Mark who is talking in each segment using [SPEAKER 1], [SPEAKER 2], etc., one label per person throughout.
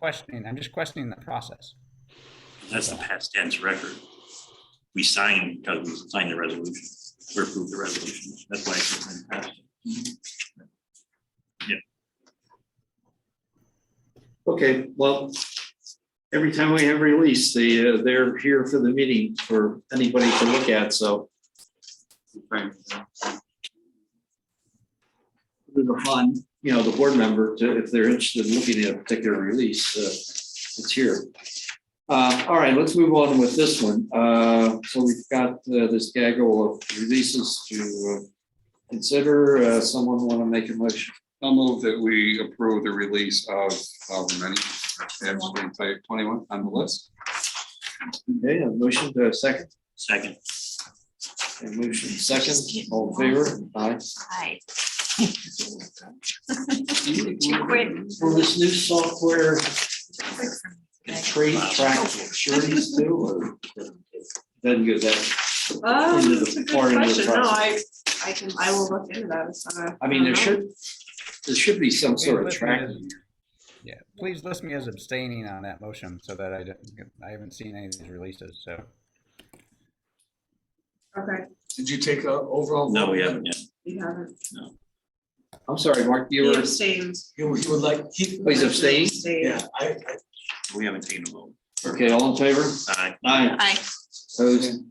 [SPEAKER 1] questioning, I'm just questioning the process.
[SPEAKER 2] That's the past tense record. We signed, because we signed the resolution, we approved the resolution. That's why it's in past.
[SPEAKER 3] Okay, well, every time we have release, they, uh, they're here for the meeting for anybody to look at, so. Put it upon, you know, the board member to, if they're interested in looking at a particular release, uh, it's here. Uh, all right, let's move on with this one. Uh, so we've got uh, this gaggle of releases to uh, consider. Uh, someone want to make a motion?
[SPEAKER 4] I'll move that we approve the release of however many, absolutely type twenty-one on the list.
[SPEAKER 3] Okay, a motion to a second.
[SPEAKER 2] Second,
[SPEAKER 3] A motion second, all in favor, aye.
[SPEAKER 5] Hi. Too quick.
[SPEAKER 3] Will this new software trade
[SPEAKER 2] track
[SPEAKER 3] sureties too, or? Doesn't go that,
[SPEAKER 6] Um,
[SPEAKER 3] Into the
[SPEAKER 6] that's a good
[SPEAKER 3] part of the
[SPEAKER 6] question. No, I,
[SPEAKER 3] process.
[SPEAKER 6] I can, I will look into that. Uh-huh. It's not a-
[SPEAKER 3] I mean, there
[SPEAKER 6] don't know.
[SPEAKER 3] should, there should be some sort of tracking.
[SPEAKER 1] Yeah, please list me as abstaining on that motion so that I don't, I haven't seen any of these releases, so.
[SPEAKER 6] Okay,
[SPEAKER 7] Did you take a overall?
[SPEAKER 2] no,
[SPEAKER 7] vote?
[SPEAKER 2] we haven't yet.
[SPEAKER 6] you haven't.
[SPEAKER 3] I'm sorry, Mark, you
[SPEAKER 6] He
[SPEAKER 3] were,
[SPEAKER 6] abstained.
[SPEAKER 7] You would you would like, he,
[SPEAKER 3] Oh, he's abstaining?
[SPEAKER 6] Abstained.
[SPEAKER 7] yeah, I, I,
[SPEAKER 2] We haven't taken a vote.
[SPEAKER 3] okay, all in favor?
[SPEAKER 2] Aye.
[SPEAKER 3] Aye.
[SPEAKER 5] Hi.
[SPEAKER 3] Opposed,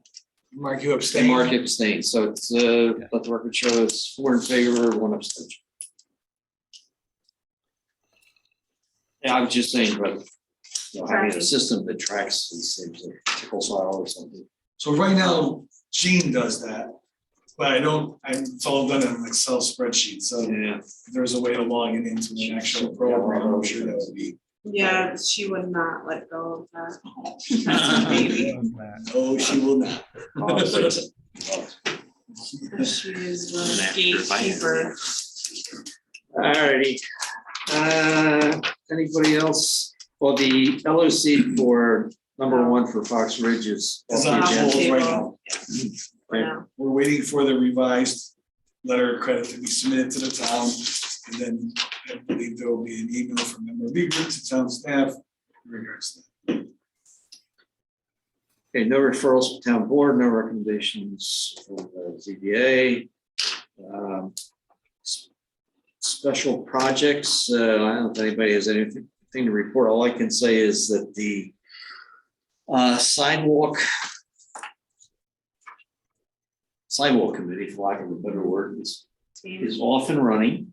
[SPEAKER 7] Mark, you
[SPEAKER 3] and
[SPEAKER 7] abstain.
[SPEAKER 3] Mark abstained, so it's, uh, let the record show it's four in favor, one abstention. Yeah, I was just saying, but, you know, having a system that tracks these things, like tickle file or something.
[SPEAKER 7] So right now, Gene does that, but I don't, I- it's all done in an Excel spreadsheet, so if
[SPEAKER 3] Yeah.
[SPEAKER 7] there's a way to log it into an actual program, I'm sure that would be.
[SPEAKER 6] Yeah, she would not let go of that. That's a baby.
[SPEAKER 7] No, she will not.
[SPEAKER 6] She is
[SPEAKER 2] An
[SPEAKER 6] the
[SPEAKER 2] actor, if I had
[SPEAKER 6] gatekeeper.
[SPEAKER 3] Alrighty, uh, anybody else? Well, the LOC for number one for Fox Ridge is.
[SPEAKER 7] It's on hold right now.
[SPEAKER 3] Right.
[SPEAKER 6] No.
[SPEAKER 7] We're waiting for the revised letter of credit to be submitted to the town. And then I believe there will be an email from MRB group to town staff in regards to that.
[SPEAKER 3] Okay, no referrals to town board, no recommendations from the ZBA. Um, s- Special projects, uh, I don't think anybody has anything thing to report. All I can say is that the uh, sidewalk sidewalk committee, for lack of a better word, is, is off and running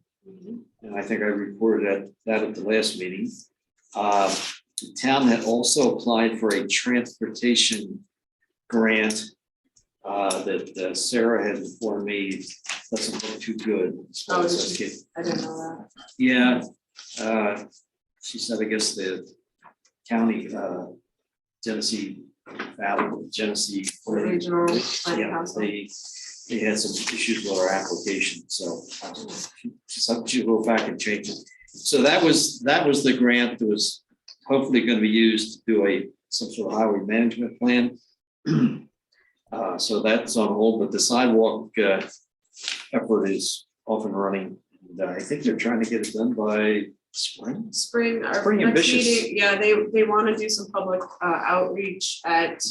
[SPEAKER 3] and I think I reported at that at the last meeting. Uh, the town had also applied for a transportation grant uh, that uh, Sarah had informed me doesn't look too good. as far as us get-
[SPEAKER 6] I didn't know
[SPEAKER 3] Yeah, uh, she said, I guess the county, uh, Genesee Valley, Genesee.
[SPEAKER 6] that. Regional plan
[SPEAKER 3] Yeah,
[SPEAKER 6] council.
[SPEAKER 3] they, they had some issues with our application, so I don't know. so she will go back and change it. So that was, that was the grant that was hopefully gonna be used to do a, some sort of highway management plan. Uh, so that's on hold, but the sidewalk, uh, effort is off and running. And uh, I think they're trying to get it done by spring.
[SPEAKER 6] Spring, our
[SPEAKER 3] Spring
[SPEAKER 6] next
[SPEAKER 3] ambitious.
[SPEAKER 6] meeting, yeah, they, they wanna do some public uh, outreach at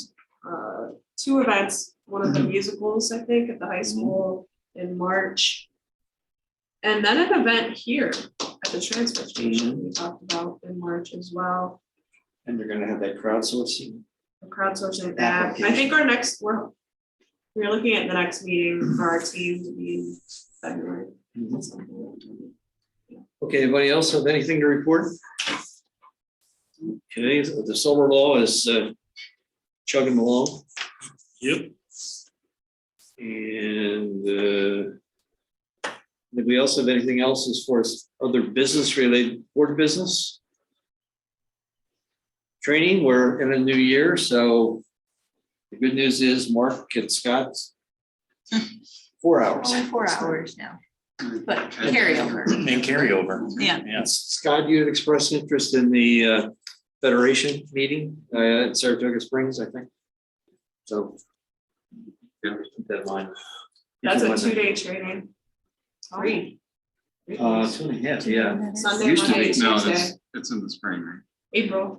[SPEAKER 6] uh, two events. One of the
[SPEAKER 3] Mm-hmm.
[SPEAKER 6] musicals, I think, at the high school in March. And then an event here at the transfer station
[SPEAKER 3] Mm-hmm.
[SPEAKER 6] we talked about in March as well.
[SPEAKER 3] And they're gonna have that crowdsourcing.
[SPEAKER 6] The Crowdsourcing app, I think
[SPEAKER 3] Application.
[SPEAKER 6] our next, we're, we're looking at the next meeting for our
[SPEAKER 3] Mm-hmm.
[SPEAKER 6] team to be in February.
[SPEAKER 3] Okay, anybody else have anything to report? Okay, the solar law is uh, chugging along
[SPEAKER 2] Yep.
[SPEAKER 3] and uh, did we also have anything else as far as other business related, board business? Training, we're in a new year, so the good news is Mark and Scott, four hours.
[SPEAKER 5] Only four hours now, but carryover.
[SPEAKER 2] And carryover.
[SPEAKER 5] Yeah.
[SPEAKER 2] Yes.
[SPEAKER 3] Scott, you had expressed interest in the uh, Federation meeting uh, in Saratoga Springs, I think. So. yeah, keep that in mind.
[SPEAKER 6] That's a two-day training.
[SPEAKER 5] Three.
[SPEAKER 3] Uh, two and a half, yeah.
[SPEAKER 6] Sunday,
[SPEAKER 3] Used to
[SPEAKER 6] Monday,
[SPEAKER 3] be.
[SPEAKER 6] Tuesday.
[SPEAKER 4] No, that's, it's in the spring, right?
[SPEAKER 6] April.